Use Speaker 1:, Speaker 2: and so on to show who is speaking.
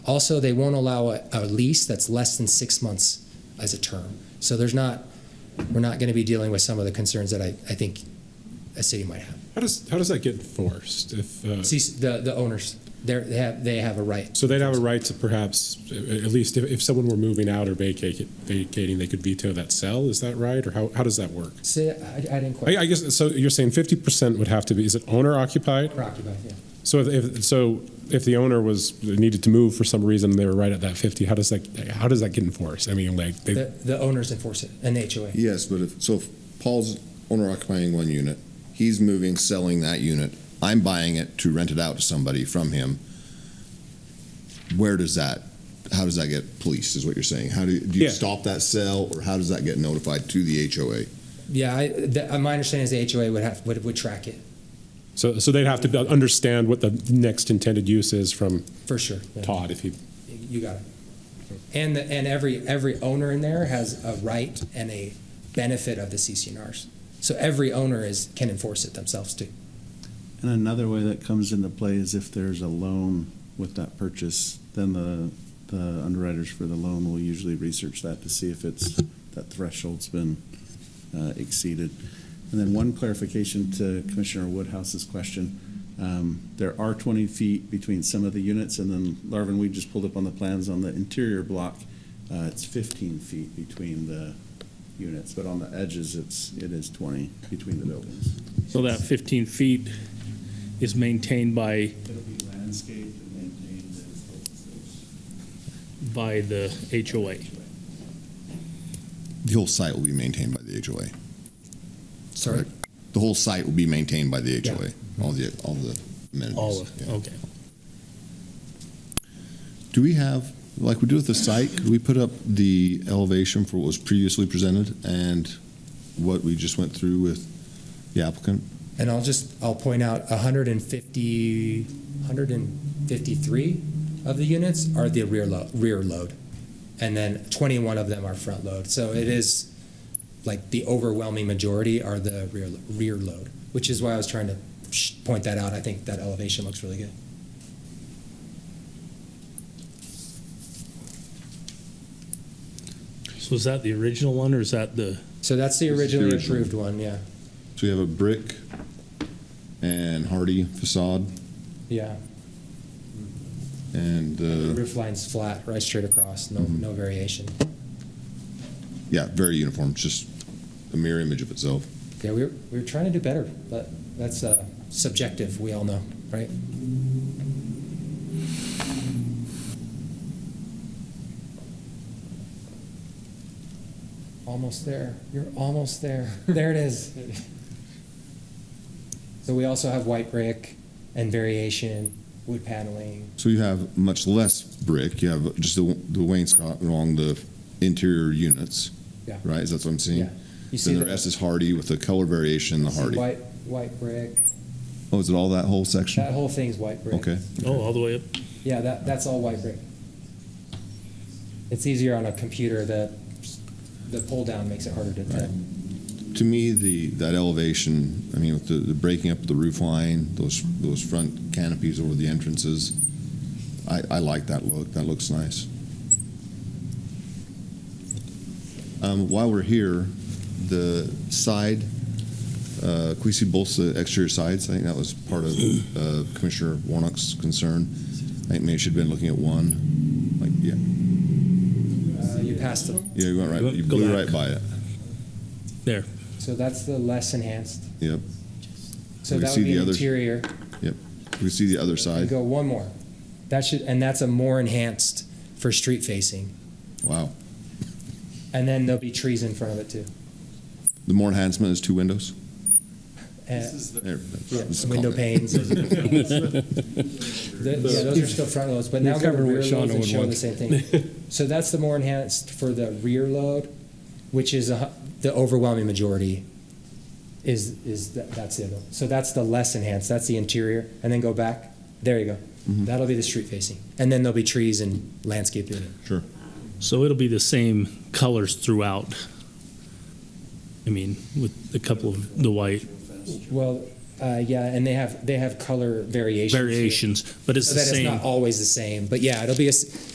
Speaker 1: Also, they won't allow a, a lease that's less than six months as a term. So there's not, we're not going to be dealing with some of the concerns that I, I think a city might have.
Speaker 2: How does, how does that get enforced? If, uh,
Speaker 1: See, the, the owners, they're, they have, they have a right.
Speaker 2: so they'd have a right to perhaps, a- a- at least if, if someone were moving out or vacating, vacating, they could veto that sale. Is that right? Or how, how does that work?
Speaker 1: See, I, I didn't
Speaker 2: I,
Speaker 1: quite.
Speaker 2: I guess, so you're saying 50% would have to be, is it owner occupied?
Speaker 1: Occupied, yeah.
Speaker 2: So if- if, so if the owner was, needed to move for some reason, and they were right at that 50, how does that, how does that get enforced? I mean, like, they,
Speaker 1: The, the owners enforce it, an HOA.
Speaker 3: Yes, but if, so if Paul's owner occupying one unit, he's moving, selling that unit, I'm buying it to rent it out to somebody from him. Where does that, how does that get policed, is what you're saying? How do, do you
Speaker 2: Yeah.
Speaker 3: stop that sale, or how does that get notified to the HOA?
Speaker 1: Yeah, I, the, uh, my understanding is the HOA would have, would, would track it,
Speaker 2: so, so they'd have to be- understand what the next intended use is from
Speaker 1: for sure. Yeah.
Speaker 2: Todd if he,
Speaker 1: You got it. And, the- and every, every owner in there has a right and a benefit of the CCNRs. So every owner is, can enforce it themselves too.
Speaker 4: And another way that comes into play is if there's a loan with that purchase, then the, the underwriters for the loan will usually research that to see if it's, that threshold's been uh, exceeded. And then one clarification to Commissioner Woodhouse's question. Um, There are 20 feet between some of the units, and then Larvin, we just pulled up on the plans on the interior block. uh, It's 15 feet between the units, but on the edges, it's, it is 20 between the buildings.
Speaker 5: So that 15 feet is maintained by,
Speaker 4: It'll be landscaped and maintained as open space.
Speaker 5: by the HOA.
Speaker 3: The whole site will be maintained by the HOA.
Speaker 1: Sorry.
Speaker 3: Correct. The whole site will be maintained by the
Speaker 1: Yeah.
Speaker 3: HOA, all the, all the amenities.
Speaker 5: All of,
Speaker 3: Yeah.
Speaker 5: okay.
Speaker 3: Do we have, like we do with the site, could we put up the elevation for what was previously presented and what we just went through with the applicant?
Speaker 1: And I'll just, I'll point out 150, 153 of the units are the rear load, rear load. And then 21 of them are front load. So it is like the overwhelming majority are the rear, rear load, which is why I was trying to sh- point that out. I think that elevation looks really good.
Speaker 5: So is that the original one, or is that the,
Speaker 1: So that's the
Speaker 3: This is the
Speaker 1: originally
Speaker 3: original.
Speaker 1: approved one, yeah.
Speaker 3: So we have a brick and hardy facade
Speaker 1: Yeah.
Speaker 3: and, uh,
Speaker 1: Roof line's flat, right straight across, no,
Speaker 3: Mm-hmm.
Speaker 1: no variation.
Speaker 3: yeah, very uniform, it's just a mirror image of itself.
Speaker 1: Yeah, we were, we were trying to do better, but that's uh, subjective, we all know, right? Almost there. You're almost there. There it is. So we also have white brick and variation, wood paneling.
Speaker 3: So you have much less brick, you have just the the wainscot along the interior units,
Speaker 1: Yeah.
Speaker 3: right? Is that what I'm
Speaker 1: Yeah.
Speaker 3: seeing?
Speaker 1: You see
Speaker 3: Then the rest is hardy with the color variation, the
Speaker 1: see
Speaker 3: hardy.
Speaker 1: White, white brick.
Speaker 3: Oh, is it all that whole section?
Speaker 1: That whole thing's white brick.
Speaker 3: Okay.
Speaker 5: oh, all the way up?
Speaker 1: Yeah, that, that's all white brick. It's easier on a computer, the, the pull down makes it harder to tell.
Speaker 3: To me, the, that elevation, I mean, with the, the breaking up of the roof line, those, those front canopies over the entrances, I, I like that look. That looks nice. Um, while we're here, the side, uh, Quisi Bolsa exterior sides, I think that was part of, uh, Commissioner Warnock's concern. I think maybe she'd been looking at one, like, yeah,
Speaker 1: Uh, You passed it,
Speaker 3: yeah, you went right, you
Speaker 5: Go
Speaker 3: blew
Speaker 5: back.
Speaker 3: right by it.
Speaker 5: There.
Speaker 1: so that's the less enhanced.
Speaker 3: Yep.
Speaker 1: So
Speaker 3: We
Speaker 1: that
Speaker 3: see
Speaker 1: would be
Speaker 3: the other-
Speaker 1: interior.
Speaker 3: We see the other
Speaker 1: You
Speaker 3: side.
Speaker 1: go one more. That should, and that's a more enhanced for street facing.
Speaker 3: Wow.
Speaker 1: And then there'll be trees in front of it too.
Speaker 3: The more enhancement is two windows?
Speaker 1: Uh,
Speaker 3: There,
Speaker 1: yeah,
Speaker 3: that's a
Speaker 1: Window
Speaker 3: comment.
Speaker 1: panes. The- Yeah, those are still front loads, but now
Speaker 5: We've
Speaker 1: go to
Speaker 5: covered what
Speaker 1: rear loads
Speaker 5: Shauna
Speaker 1: and
Speaker 5: would
Speaker 1: show
Speaker 5: want.
Speaker 1: the same thing. So that's the more enhanced for the rear load, which is a hu- the overwhelming majority is, is, tha- that's it. So that's the less enhanced, that's the interior, and then go back, there you go. That'll be the street facing, and then there'll be trees and landscape in it.
Speaker 5: So it'll be the same colors throughout. I mean, with a couple of the white.
Speaker 1: Well, Uh, yeah, and they have they have color variations. too.
Speaker 5: variations, but it's
Speaker 1: so
Speaker 5: the
Speaker 1: that it's
Speaker 5: same.
Speaker 1: not always the same. But yeah, it'll be a s-